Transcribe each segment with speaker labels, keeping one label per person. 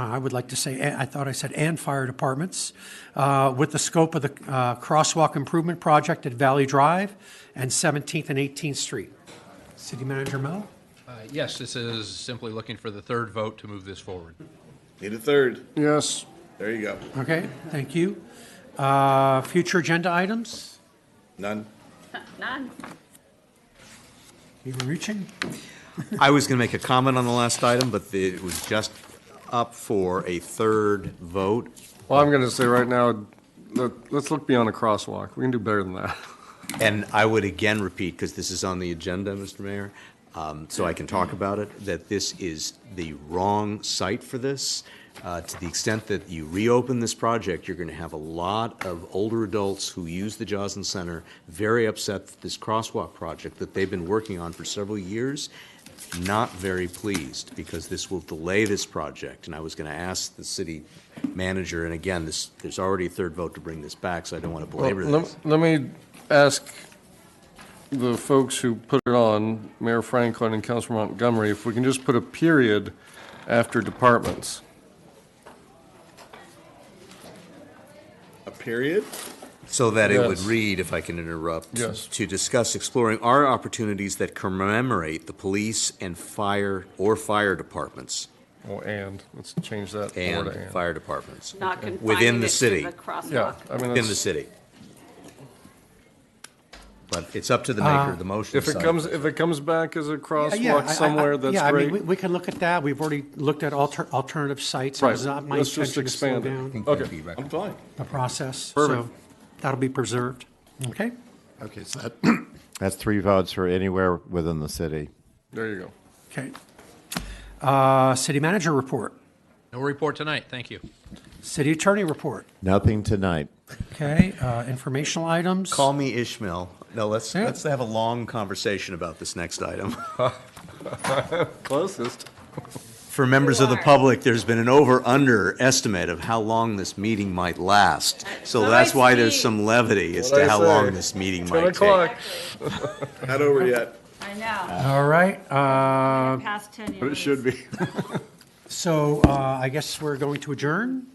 Speaker 1: Uh, I would like to say, I thought I said, and fire departments, uh, with the scope of the uh, crosswalk improvement project at Valley Drive and 17th and 18th Street. City Manager Mel?
Speaker 2: Uh, Yes, this is simply looking for the third vote to move this forward.
Speaker 3: Need a third.
Speaker 4: Yes,
Speaker 3: There you go.
Speaker 1: Okay, thank you. Uh, Future agenda items?
Speaker 3: None.
Speaker 5: None.
Speaker 1: You were reaching?
Speaker 6: I was going to make a comment on the last item, but the- it was just up for a third vote.
Speaker 4: well, I'm gonna say right now, let, let's look beyond a crosswalk, we can do better than that.
Speaker 6: And I would again repeat, because this is on the agenda, Mr. Mayor, um, so I can talk about it, that this is the wrong site for this. Uh, To the extent that you reopen this project, you're going to have a lot of older adults who use the Joslin Center very upset that this crosswalk project that they've been working on for several years, not very pleased, because this will delay this project. And I was going to ask the city manager, and again, this, there's already a third vote to bring this back, so I don't want to belabor
Speaker 4: Well, lem-
Speaker 6: this.
Speaker 4: Let me ask the folks who put it on, Mayor Franklin and Councilor Montgomery, if we can just put a period after departments.
Speaker 3: A period?
Speaker 6: So that it would
Speaker 4: Yes.
Speaker 6: read, if I can interrupt.
Speaker 4: Yes.
Speaker 6: To discuss exploring our opportunities that commemorate the police and fire, or fire departments,
Speaker 4: Oh, and, let's change that. more
Speaker 6: and
Speaker 4: to and.
Speaker 6: fire departments.
Speaker 5: Not confining
Speaker 6: Within the
Speaker 5: it
Speaker 6: city,
Speaker 5: to the crosswalk.
Speaker 4: Yeah, I mean,
Speaker 6: within the
Speaker 4: that's-
Speaker 6: city. But it's up to the maker of the motion.
Speaker 4: Ah, if it
Speaker 6: so-
Speaker 4: comes, if it comes back as a
Speaker 1: Uh, Yeah, I- I-
Speaker 4: crosswalk
Speaker 1: I-
Speaker 4: somewhere, that's
Speaker 1: Yeah, I mean, we-
Speaker 4: great.
Speaker 1: we can look at that. We've already looked at alter- alternative sites. It
Speaker 4: Right,
Speaker 1: was not my
Speaker 4: let's just
Speaker 1: intention to slow
Speaker 4: expand it.
Speaker 1: down
Speaker 4: Okay.
Speaker 3: I'm fine.
Speaker 1: the process, so
Speaker 4: Perfect.
Speaker 1: that'll be preserved. Okay?
Speaker 7: Okay, so that, that's three votes for anywhere within the city.
Speaker 4: There you go.
Speaker 1: Okay. Uh, City manager report,
Speaker 2: No report tonight, thank you.
Speaker 1: city attorney report,
Speaker 7: Nothing tonight.
Speaker 1: okay, uh, informational items.
Speaker 6: Call me Ishmael. No, let's, let's have a long conversation about this next item.
Speaker 4: Closest.
Speaker 6: For members of the
Speaker 5: are.
Speaker 6: public, there's been an over-under estimate of how long this meeting might last. So
Speaker 5: Let
Speaker 6: that's
Speaker 5: me
Speaker 6: why there's
Speaker 5: see.
Speaker 6: some levity as
Speaker 4: What'd
Speaker 6: to
Speaker 4: I
Speaker 6: how
Speaker 4: say?
Speaker 6: long this meeting
Speaker 4: 10
Speaker 6: might
Speaker 4: o'clock.
Speaker 6: take.
Speaker 3: Not over yet.
Speaker 5: I know,
Speaker 1: All right, uh,
Speaker 5: past 10 years.
Speaker 4: But it should be.
Speaker 1: so, uh, I guess we're going to adjourn.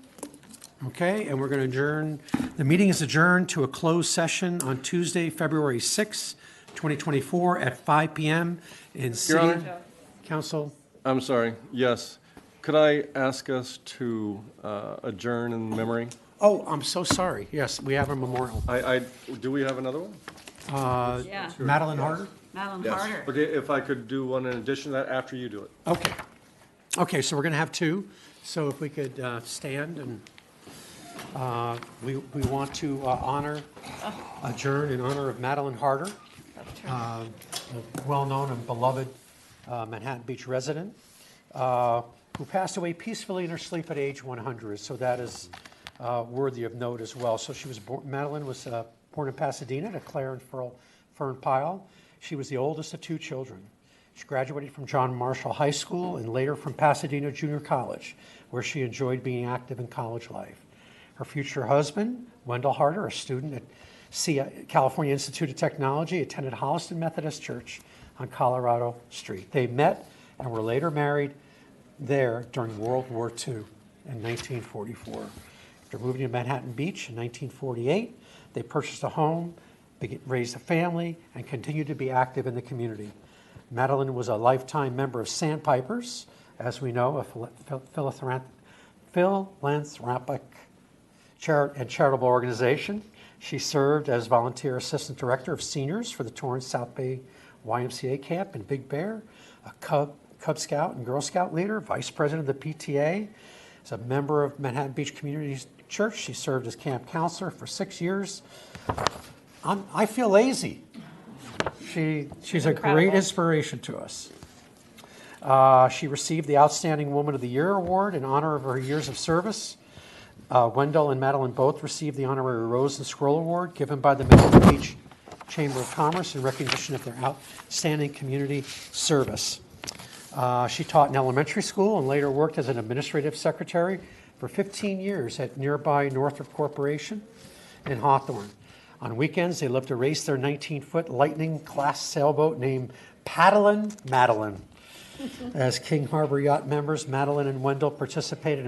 Speaker 1: Okay, and we're gonna adjourn, the meeting is adjourned to a closed session on Tuesday, February sixth, twenty twenty-four at five PM in city
Speaker 4: Honor.
Speaker 1: council.
Speaker 4: I'm sorry, yes. Could I ask us to uh, adjourn in memory?
Speaker 1: Oh, I'm so sorry, yes, we have a memorial.
Speaker 4: I, I, do we have another one?
Speaker 5: Yeah,
Speaker 1: Madeline Harder?
Speaker 5: Madeline
Speaker 3: Yes.
Speaker 5: Harder.
Speaker 4: Okay, if I could do one in addition to that after you do it.
Speaker 1: Okay. Okay, so we're going to have two. So if we could uh, stand and uh, we we want to uh, honor, adjourn in honor of Madeline Harder, uh, a well-known and beloved uh, Manhattan Beach resident, uh, who passed away peacefully in her sleep at age 100. So that is uh, worthy of note as well. So she was, bor- Madeline was uh, born in Pasadena to Claire and Fern Fern Pyle. She was the oldest of two children. She graduated from John Marshall High School and later from Pasadena Junior College, where she enjoyed being active in college life. Her future husband, Wendell Harder, a student at C- California Institute of Technology, attended Holliston Methodist Church on Colorado Street. They met and were later married there during World War II in 1944. After moving to Manhattan Beach in 1948, they purchased a home, beg- raised a family, and continued to be active in the community. Madeline was a lifetime member of Sandpipers, as we know, a phil- phil- philanthrop- philanthropic chari- and charitable organization. She served as volunteer assistant director of seniors for the Torrance South Bay YMCA camp in Big Bear, a Cub, Cub Scout and Girl Scout leader, vice president of the PTA. As a member of Manhattan Beach Community Church, she served as camp counselor for six years. I'm, I feel lazy. She, she's a great
Speaker 5: Incredible.
Speaker 1: inspiration to us. Uh, she received the Outstanding Woman of the Year award in honor of her years of service. Uh, Wendell and Madeline both received the honorary Rose and Scroll Award given by the Manhattan Beach Chamber of Commerce in recognition of their outstanding community service. Uh, she taught in elementary school and later worked as an administrative secretary for 15 years at nearby Northrop Corporation in Hawthorne. On weekends, they loved to race their 19 foot Lightning class sailboat named Paddlin' Madeline. As King Harbor Yacht members, Madeline and Wendell participated in